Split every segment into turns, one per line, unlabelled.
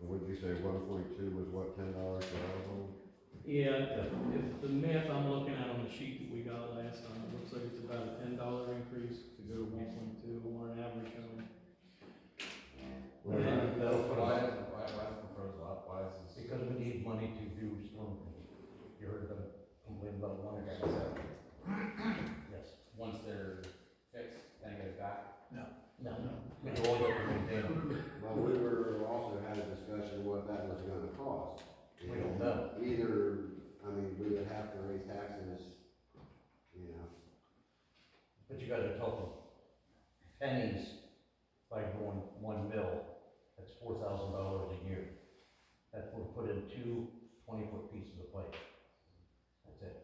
And would you say one point two was what, ten dollars per household?
Yeah, if- if the math I'm looking at on the sheet that we got last time, it looks like it's about a ten dollar increase to go to one point two or an average of.
Well,
Yeah.
I-
Why, why,
Why-
why is the first lot, why is this?
Because we need money to do storm control. You heard them complain about one guy, so, yes.
Once they're fixed, then it goes back.
No, we all get the same thing.
Well, we were, also had a discussion what that was gonna cost.
We don't know.
Either, I mean, we would have to raise taxes, you know,
But you gotta total pennies by going one mill, that's four thousand dollars a year. That would put in two twenty-foot pieces of pipe. That's it.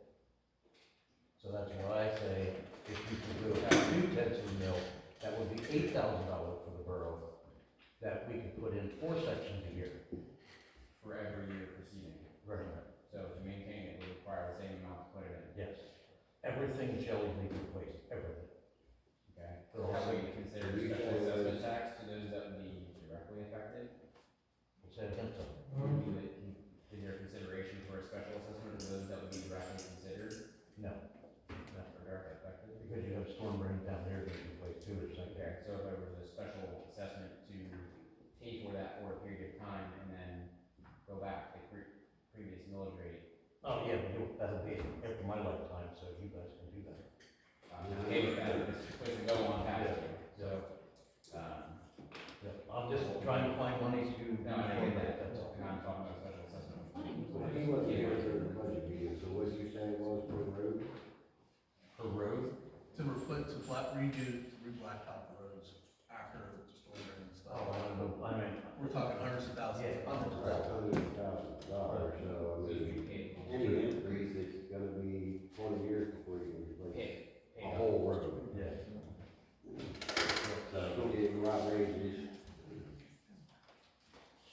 So that's why I say, if you could do about two tenths of a mill, that would be eight thousand dollars for the borough. That we could put in four sections a year.
For every year proceeding,
Right.
so to maintain it, we require the same amount to put it in,
Yes. Everything jelly leaf replaced, everything.
okay?
They're all
Have we
same.
considered
You
special
say-
assessment tax to those that would be directly affected?
It's that simple.
Would you, like, is there consideration for a special assessment to those that would be directly considered
No,
or directly affected?
because you have storm drain down there that you replace too, it's like that.
Okay, so if there was a special assessment to pay for that for a period of time and then go back to pre- previous millage rate,
Oh, yeah, but you- that'll be after my lifetime, so you guys can do that.
um, pay for that, it's supposed to go on past you, so, um,
Yeah, I'm just trying to find money to.
no, I don't get that,
That's all.
I'm not talking about special assessment.
Well, he wasn't here during the budget meeting, so what you say was per road?
For roads,
to reflect, to flat redo, to re-blacktop the roads after the storm drain and
Oh, I
stuff.
don't know, I mean,
We're talking hundreds of thousands.
Yeah, hundreds of
That's hundred thousand dollars, so I
those would
mean,
be paid,
any increase, it's gonna be twenty years before you can replace
paid, paid.
a whole road.
yeah.
So it's gonna get right ranges.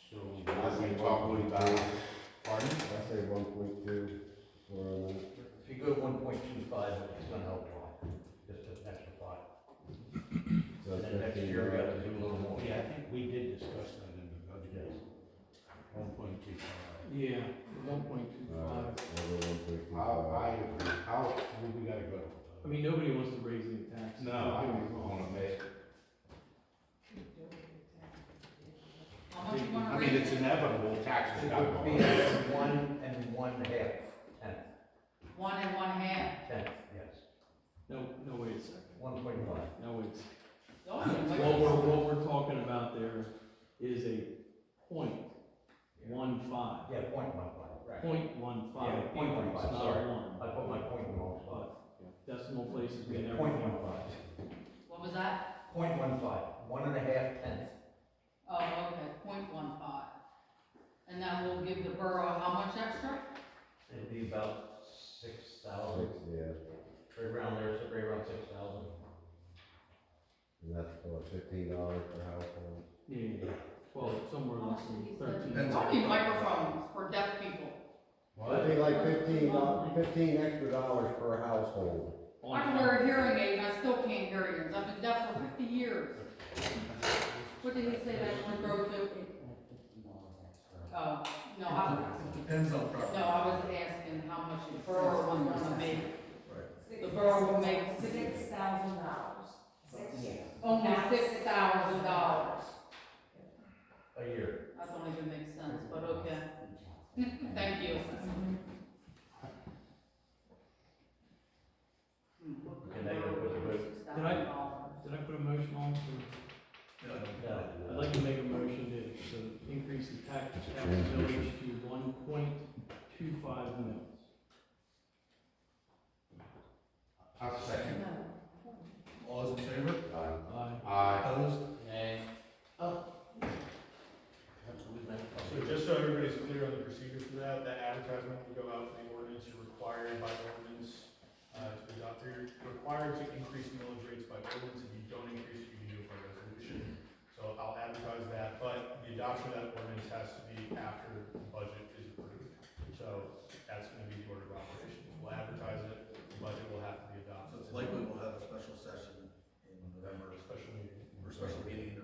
So.
I say one point two. Pardon? I say one point two for, uh,
If you go one point two five, it's gonna help a lot, just an extra five.
so
And then next
fifteen
year, we have
dollars.
to do a little more.
Yeah, I think we did discuss that in the budget, one point two five.
Yeah, one point two five.
I'll, I, I'll,
We gotta go.
I mean, nobody wants to raise any taxes.
No, I don't wanna make,
How much you wanna
I mean,
raise
it's
it?
inevitable, taxes gotta
It would be
go up.
at one and one half, tenth,
One and one half.
tenth, yes,
No, no, wait a second.
one point five.
No, it's,
Those are way-
what we're, what we're talking about there is a point one five.
Yeah, point one five.
Right.
Point one
Yeah,
five.
point one
increase,
five,
not
sorry.
one.
I put my point in the wrong spot.
But decimal places we
Yeah,
never.
Point one five.
What was that?
Point one five, one and a half tenths.
Oh, okay, point one five. And that will give the borough how much extra?
It'll be about six thousand,
six, yeah,
right around there, so right around six thousand.
and that's for fifteen dollars per household.
Yeah, yeah, yeah. well, somewhere
How much
less
did he
than
say?
thirteen.
Depends
I
on-
need microphones for deaf people.
It'd be like fifteen, doll- fifteen extra dollars per household.
I can wear a hearing aid and I still can't hear you. I've been deaf for fifty years. What did he say that one broke to? Oh, no, I,
Depends on property.
no, I was asking how much the borough would wanna make. The
The
borough
borough
will
will
make
six thousand dollars. Six.
Only six thousand dollars.
A year.
That don't even make sense, but okay. Thank you.
And they go with the
Did I- Did I put a motion on for,
No, no.
I'd like to make a motion to, to increase the tax, tax millage to one point two five mils.
I'll second.
All those in favor?
Aye.
Aye.
Aye.
Opposed?
Nay.
So just so everybody's clear on the procedure for that, that advertisement will go out for the ordinance, you're required by ordinance, uh, to adopt, you're required to increase millage rates by ordinance, if you don't increase it, you can do it by resolution. So I'll advertise that, but the adoption of that ordinance has to be after the budget is approved. So that's gonna be the order of operations, we'll advertise it, the budget will have to be
So
adopted.
it's likely we'll have a special session in November,
Special meeting.
or special meeting in